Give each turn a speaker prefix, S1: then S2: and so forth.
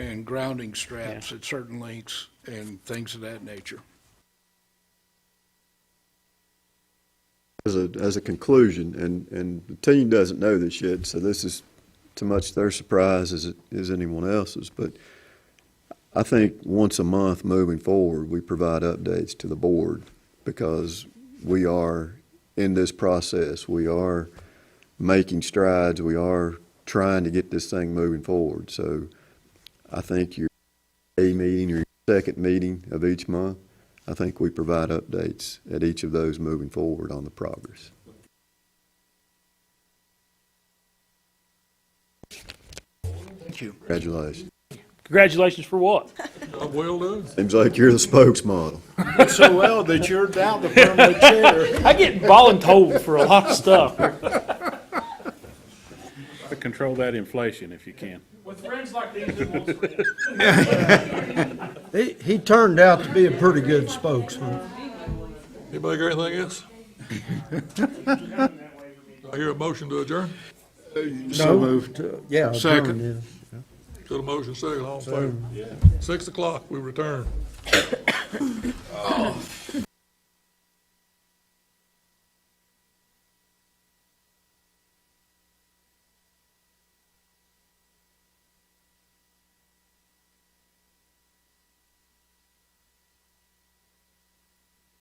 S1: and grounding straps at certain lengths and things of that nature.
S2: as a, as a conclusion, and, and the team doesn't know this yet, so this is to much their surprise as, it as anyone else's, but I think once a month moving forward, we provide updates to the board because we are in this process. We are making strides. We are trying to get this thing moving forward. So I think your A meeting or your second meeting of each month, I think we provide updates at each of those moving forward on the progress.
S1: Thank you.
S2: Congratulations.
S3: Congratulations for what?
S4: Well done.
S2: Seems like you're the spokesmodel.
S1: So well that you're now the permanent chair.
S3: I get voluntold for a lot of stuff.
S4: Control that inflation if you can.
S3: With friends like these, it won't
S5: He, he turned out to be a pretty good spokesman.
S4: Anybody got anything else? I hear a motion to adjourn.
S1: So moved.
S5: Uh, Yeah.
S1: Second.
S5: turned in.
S4: To the motion, second, all in favor? Six o'clock, we return.